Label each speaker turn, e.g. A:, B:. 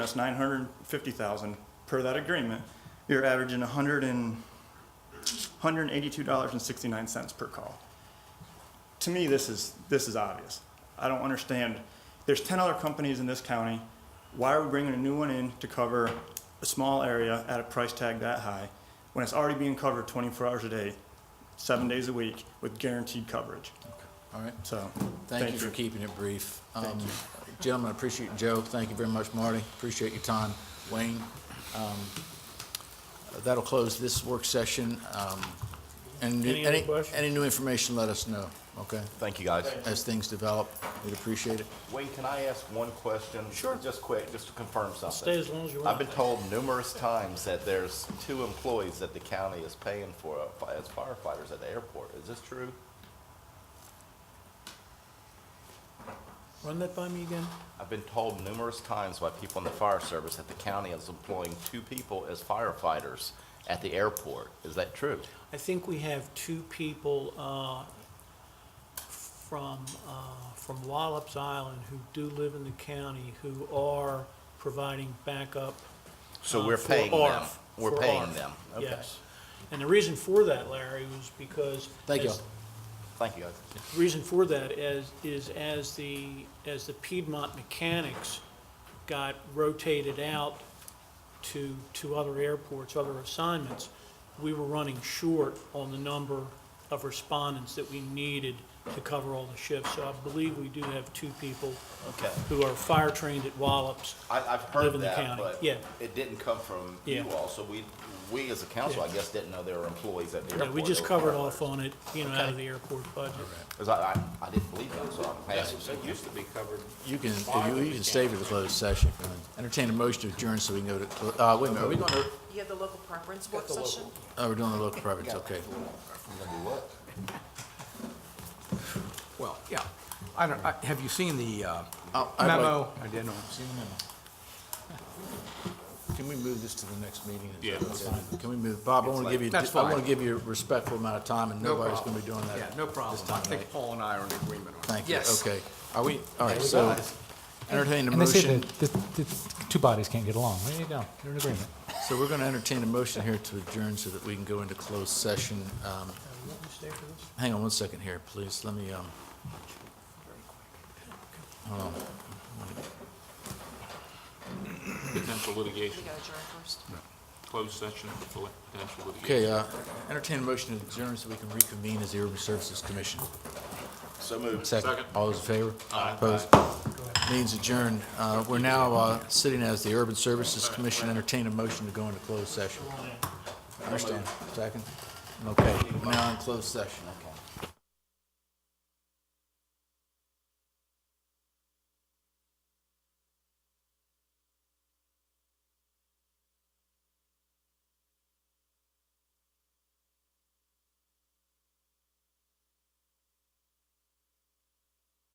A: That's nine hundred fifty thousand per that agreement. You're averaging a hundred and, hundred and eighty-two dollars and sixty-nine cents per call. To me, this is, this is obvious. I don't understand. There's ten other companies in this county. Why are we bringing a new one in to cover a small area at a price tag that high when it's already being covered twenty-four hours a day, seven days a week with guaranteed coverage?
B: All right,
A: So,
B: thank you for keeping it brief. Um, Gentlemen, I appreciate you, Joe, thank you very much, Marty, appreciate your time, Wayne. um, That'll close this work session. um, And
C: Any other questions?
B: Any new information, let us know, okay?
D: Thank you, guys.
B: As things develop, we'd appreciate it.
D: Wayne, can I ask one question? Sure. Just quick, just to confirm something.
C: Stay as long as you
D: I've
C: want.
D: been told numerous times that there's two employees that the county is paying for uh, fi- as firefighters at the airport. Is this true?
C: Run that by me again?
D: I've been told numerous times by people in the fire service that the county is employing two people as firefighters at the airport. Is that true?
C: I think we have two people uh, from, uh, from Wallops Island who do live in the county who are providing backup.
D: So
C: uh,
D: we're
C: for
D: paying them.
C: ARF,
D: We're
C: for
D: paying
C: ARF,
D: them. Okay.
C: Yes. And the reason for that, Larry, was because.
B: Thank you.
C: as-
D: Thank you, guys.
C: reason for that is, is as the, as the Piedmont mechanics got rotated out to, to other airports, other assignments, we were running short on the number of respondents that we needed to cover all the shifts. So I believe we do have two people
D: Okay.
C: who are fire trained at Wallops.
D: I, I've
C: Live
D: heard
C: in the
D: that,
C: county,
D: but
C: yeah.
D: it didn't come from you
C: Yeah.
D: all. So we, we as a council, I
C: Yeah.
D: guess, didn't know there were employees at the
C: Yeah,
D: airport.
C: We just
D: that were
C: covered
D: firefighters.
C: off on it, you know, out of the airport budget.
D: Because I, I, I didn't believe that, so I'm passing.
E: It used to be covered.
B: You can, you can stay for the closed session. Entertain a motion to adjourn so we can go to, uh, wait a minute, are we going to,
F: You have the local preference work session?
B: oh, we're doing the local privates, okay.
E: Well, yeah. I don't, I, have you seen the uh,
B: Oh, I'd like-
E: memo? I didn't.
B: Can we move this to the next meeting? Is
E: Yeah,
B: that
E: that's
B: okay? Can we move, Bob, I want to give you,
E: That's
B: I want to
E: fine.
B: give you a respectful amount of time, and
E: No
B: nobody's
E: problem.
B: going to be doing that.
E: Yeah, no problem.
B: this
E: I
B: time, right?
E: think Paul and I are in agreement on it.
B: Thank you,
E: Yes.
B: okay. Are we, all right, so entertain a
G: And they say
B: motion,
G: that the, the two bodies can't get along. There you go. You're in agreement.
B: so we're going to entertain a motion here to adjourn so that we can go into closed session. Um,
C: Let me stay for this.
B: Hang on one second here, please, let me, um,
H: Potential
F: We
H: litigation,
F: gotta adjourn first.
H: closed session for potential litigation.
B: okay, uh, entertain a motion to adjourn so we can reconvene as the Urban Services Commission.
D: So moved.
B: Second,
H: Second.
B: all those in favor? Opposed? Means adjourned. Uh, We're now uh, sitting as the Urban Services Commission, entertain a motion to go into closed session. Understand? Second? Okay, we're now in closed session, okay.